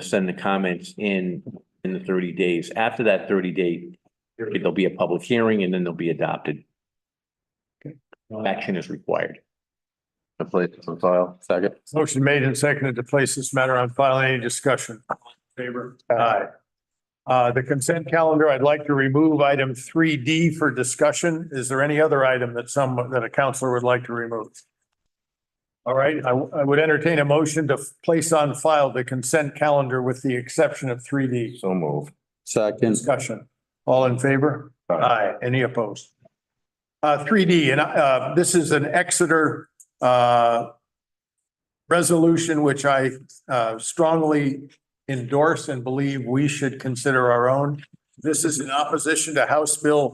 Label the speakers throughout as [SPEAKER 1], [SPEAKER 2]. [SPEAKER 1] send the comments in, in the thirty days. After that thirty day, period, there'll be a public hearing and then they'll be adopted. No Action is required.
[SPEAKER 2] The place is on file, second.
[SPEAKER 3] Motion made and seconded to place this matter on file. Any discussion? All in Favor? Aye. Uh, the consent calendar, I'd like to remove item three D for discussion. Is there any other item that some, that a counselor would like to remove? All right, I, I would entertain a motion to place on file the consent calendar with the exception of three D.
[SPEAKER 2] So move. Second.
[SPEAKER 3] Discussion. All in favor? Aye. Any opposed? Uh, three D, and, uh, this is an Exeter, uh, resolution which I, uh, strongly endorse and believe we should consider our own. This is in opposition to House Bill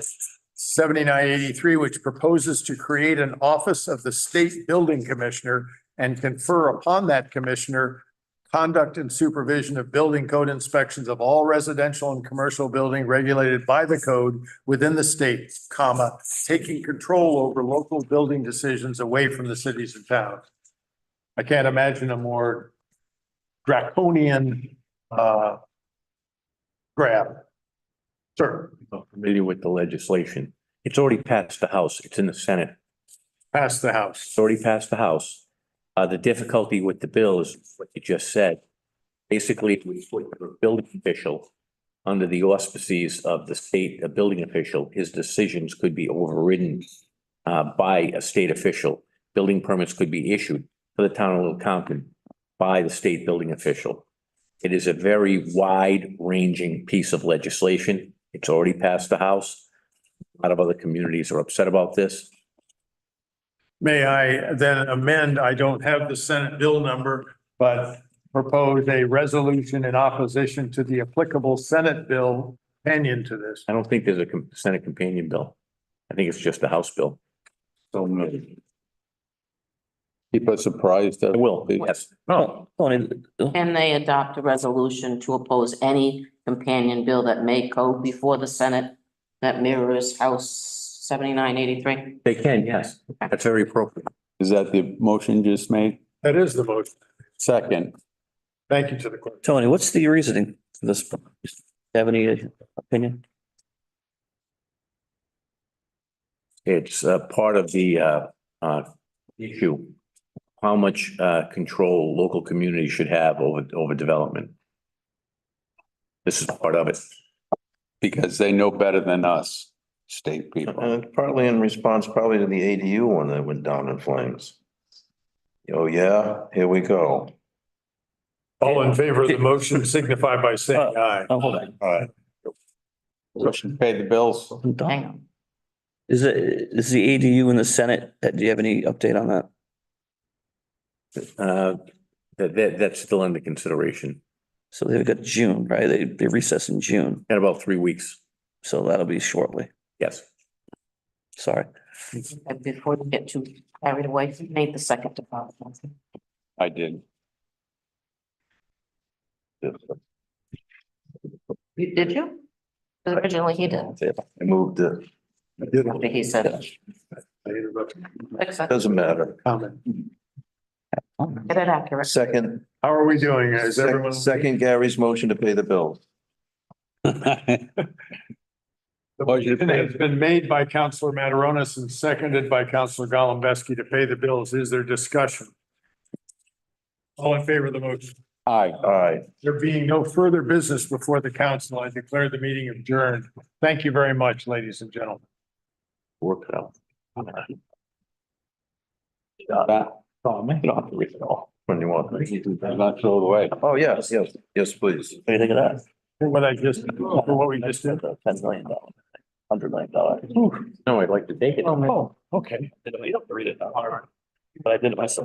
[SPEAKER 3] seventy-nine eighty-three, which proposes to create an office of the State Building Commissioner and confer upon that commissioner conduct and supervision of building code inspections of all residential and commercial building regulated by the code within the state, comma, taking control over local building decisions away from the cities and towns. I can't imagine a more draconian, uh, grab. Sir,
[SPEAKER 1] Not Familiar with the legislation. It's already passed the House. It's in the Senate.
[SPEAKER 3] pass the house.
[SPEAKER 1] It's already passed the House. Uh, the difficulty with the bill is what you just said. Basically, we put the building official under the auspices of the state, a building official, his decisions could be overridden uh, by a state official. Building permits could be issued for the town of Little Compton by the state building official. It is a very wide-ranging piece of legislation. It's already passed the House. A lot of other communities are upset about this.
[SPEAKER 3] May I then amend, I don't have the Senate bill number, but propose a resolution in opposition to the applicable Senate bill opinion to this.
[SPEAKER 1] I don't think there's a com- Senate companion bill. I think it's just a House bill.
[SPEAKER 2] So move. Keep us surprised.
[SPEAKER 1] I will, yes. Oh,
[SPEAKER 4] No.
[SPEAKER 5] Can they adopt a resolution to oppose any companion bill that may go before the Senate that mirrors House seventy-nine eighty-three?
[SPEAKER 1] They can, yes. That's very appropriate.
[SPEAKER 2] Is that the motion just made?
[SPEAKER 3] That is the motion.
[SPEAKER 2] Second.
[SPEAKER 3] Thank you to the clerk.
[SPEAKER 4] Tony, what's the reasoning for this? Do you Have any opinion?
[SPEAKER 1] It's uh part of the uh, uh, issue. How much, uh, control local communities should have over, over development. This is part of it.
[SPEAKER 2] Because they know better than us, state people.
[SPEAKER 6] And Uh, partly in response probably to the ADU one that went down in flames. Oh, yeah, here we go.
[SPEAKER 3] All in favor of the motion signify by saying aye.
[SPEAKER 4] Oh, hold on.
[SPEAKER 6] All right.
[SPEAKER 2] Pay the bills.
[SPEAKER 4] I'm done.
[SPEAKER 5] Hang on.
[SPEAKER 4] Is it, is the ADU in the Senate? Uh, Do you have any update on that?
[SPEAKER 1] Uh, that, that, that's still under consideration
[SPEAKER 4] So they've got June, right? They, they recess in June.
[SPEAKER 1] in about three weeks.
[SPEAKER 4] So that'll be shortly.
[SPEAKER 1] Yes.
[SPEAKER 4] Sorry.
[SPEAKER 5] And Before we get too carried away, make the second department.
[SPEAKER 2] I did.
[SPEAKER 5] You- Did you? 'Cause Originally, he did.
[SPEAKER 6] I moved it.
[SPEAKER 5] After he said it.
[SPEAKER 3] I interrupted
[SPEAKER 5] Fix it.
[SPEAKER 6] Doesn't matter.
[SPEAKER 3] comment.
[SPEAKER 5] Get it accurate.
[SPEAKER 6] Second,
[SPEAKER 3] How are we doing? Is everyone?
[SPEAKER 6] second Gary's motion to pay the bills.
[SPEAKER 3] The motion has been made by Counselor Mataronis and seconded by Counselor Golembeski to pay the bills. Is there discussion? All in favor of the motion?
[SPEAKER 2] Aye.
[SPEAKER 6] All right.
[SPEAKER 3] There being no further business before the council, I declare the meeting adjourned. Thank you very much, ladies and gentlemen.
[SPEAKER 1] Work it out.
[SPEAKER 2] You don't have to read it all.
[SPEAKER 6] When you want.
[SPEAKER 2] Not throw it away.
[SPEAKER 6] Oh, yes, yes, yes, please.
[SPEAKER 4] What do you think of that?
[SPEAKER 3] What I just, for what we just did.
[SPEAKER 4] Ten million dollars, hundred million dollars.
[SPEAKER 1] No, I'd like to take it.
[SPEAKER 4] Oh,
[SPEAKER 3] Okay.
[SPEAKER 4] You don't have to read it. But I did it myself.